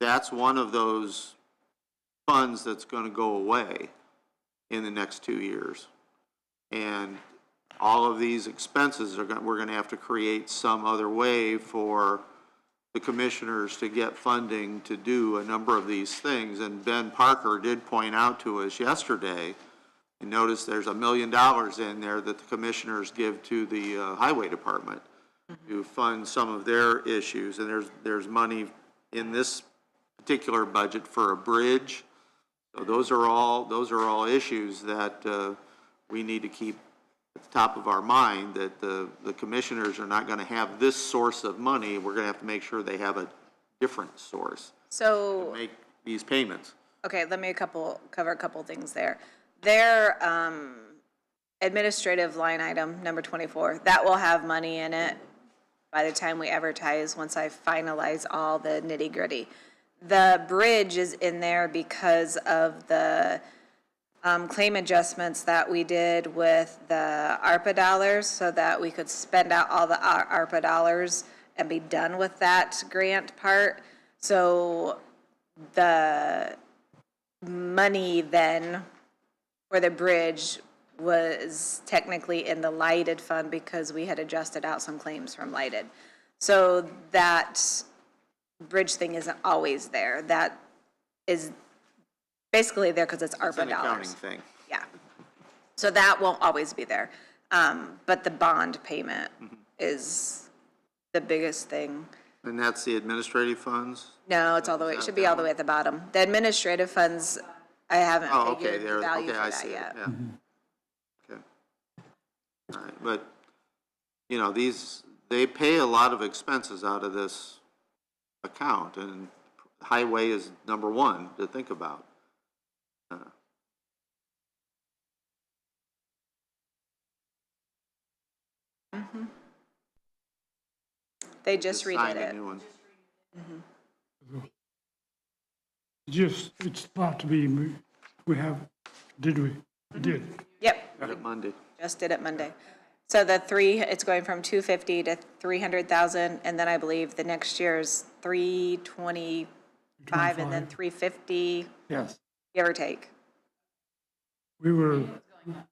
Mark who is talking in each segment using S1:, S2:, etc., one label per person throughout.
S1: that's one of those funds that's gonna go away in the next two years. And all of these expenses are gonna, we're gonna have to create some other way for the commissioners to get funding to do a number of these things. And Ben Parker did point out to us yesterday, you notice there's a million dollars in there that the commissioners give to the uh, highway department to fund some of their issues, and there's, there's money in this particular budget for a bridge. So those are all, those are all issues that uh, we need to keep at the top of our mind, that the, the commissioners are not gonna have this source of money, we're gonna have to make sure they have a different source to
S2: So,
S1: make these payments.
S2: okay, let me a couple, cover a couple things there. Their um, administrative line item, number 24, that will have money in it by the time we advertise, once I finalize all the nitty gritty. The bridge is in there because of the um, claim adjustments that we did with the ARPA dollars so that we could spend out all the Ar- ARPA dollars and be done with that grant part. So the money then for the bridge was technically in the lighted fund because we had adjusted out some claims from lighted. So that bridge thing isn't always there. That is basically there because it's
S1: It's an
S2: ARPA
S1: accounting
S2: dollars.
S1: thing.
S2: Yeah. So that won't always be there. Um, but the bond payment is the biggest thing.
S1: And that's the administrative funds?
S2: No, it's all the way, it should be all the way at the bottom. The administrative funds, I haven't
S1: Oh, okay,
S2: figured
S1: there,
S2: the value
S1: okay,
S2: for
S1: I
S2: that
S1: see it,
S2: yet.
S1: yeah. Okay. All right, but, you know, these, they pay a lot of expenses out of this account, and highway is number one to think about. Uh,
S2: They just redid
S1: signed a
S2: it.
S1: new one.
S3: Just, it's about to be, mo- we have, did we? We Did.
S2: Yep,
S1: Got it Monday.
S2: just did it Monday. So the three, it's going from two fifty to three hundred thousand, and then I believe the next year is three twenty-five and then three fifty,
S3: Yes.
S2: give or take.
S3: We were,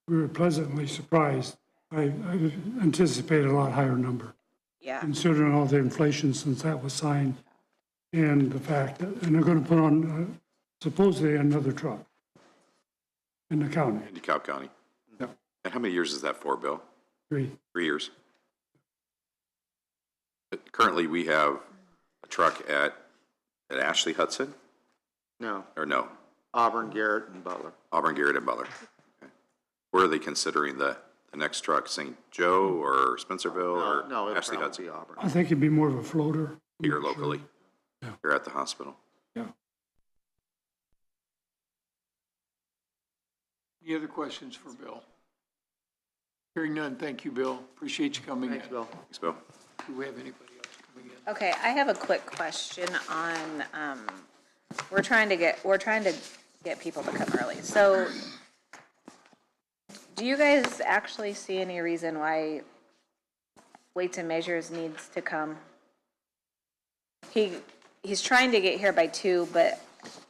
S3: we were pleasantly surprised. I I anticipated a lot higher number,
S2: Yeah,
S3: considering all the inflation since that was signed and the fact that, and they're going to put on uh, supposedly another truck in the county.
S4: in DeKalb County.
S3: Yep.
S4: And how many years is that for, Bill?
S3: Three.
S4: Three years? But Currently, we have a truck at, at Ashley Hudson,
S1: No,
S4: or no,
S1: Auburn, Garrett, and Butler.
S4: Auburn Garrett and Butler. Okay. Where are they considering the, the next truck, St. Joe or
S1: No,
S4: Spencerville
S1: no,
S4: or
S1: it'd
S4: Ashley
S1: probably be
S4: Hudson?
S1: Auburn.
S3: I think it'd be more of a floater.
S4: Here locally,
S3: Yeah.
S4: here at the hospital.
S3: Yeah.
S5: Any other questions for Bill? Hearing none, thank you, Bill. Appreciate you coming in.
S1: Thanks, Bill.
S4: Thanks, Bill.
S5: Do we have anybody else coming in?
S2: okay, I have a quick question on, um, we're trying to get, we're trying to get people to come early, so. Do you guys actually see any reason why weights and measures needs to come? He, he's trying to get here by two, but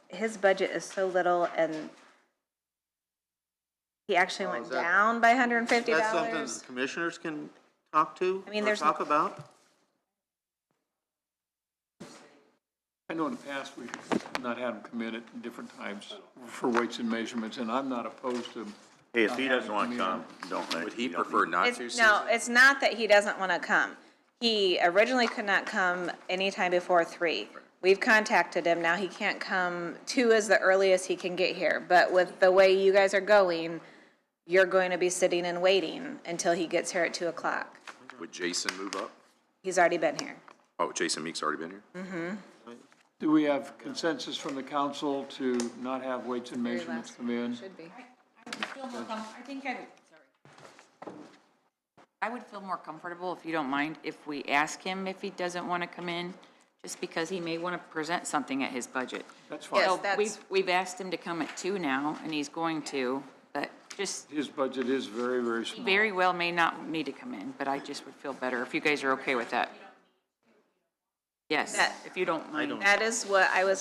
S2: his budget is so little and he actually
S1: Oh,
S2: went
S1: is that-
S2: down by hundred and fifty
S1: That's something
S2: dollars.
S1: the commissioners can talk to
S2: I mean,
S1: or
S2: there's-
S1: talk about?
S5: I know in the past, we've not had them come in at different times for weights and measurements, and I'm not opposed to,
S6: Hey, if he doesn't want to come, don't let.
S4: Would he
S6: you don't
S4: prefer
S6: need-
S4: not to?
S2: It's, no, it's not that he doesn't want to come. He originally could not come anytime before three. We've contacted him, now he can't come, two is the earliest he can get here, but with the way you guys are going, you're going to be sitting and waiting until he gets here at two o'clock.
S4: Would Jason move up?
S2: He's already been here.
S4: Oh, Jason Meek's already been here?
S5: do we have consensus from the council to not have weights and measurements come in?
S2: Should be.
S7: I would feel more com, I think I would, sorry. I would feel more comfortable, if you don't mind, if we ask him if he doesn't want to come in, just because he may want to present something at his budget.
S5: That's fine.
S2: Yes,
S7: So
S2: that's-
S7: we've, we've asked him to come at two now, and he's going to, but just,
S5: His budget is very, very
S7: he
S5: small.
S7: very well may not need to come in, but I just would feel better if you guys are okay with that. Yes,
S2: That-
S7: if you don't mind.
S2: That is what I was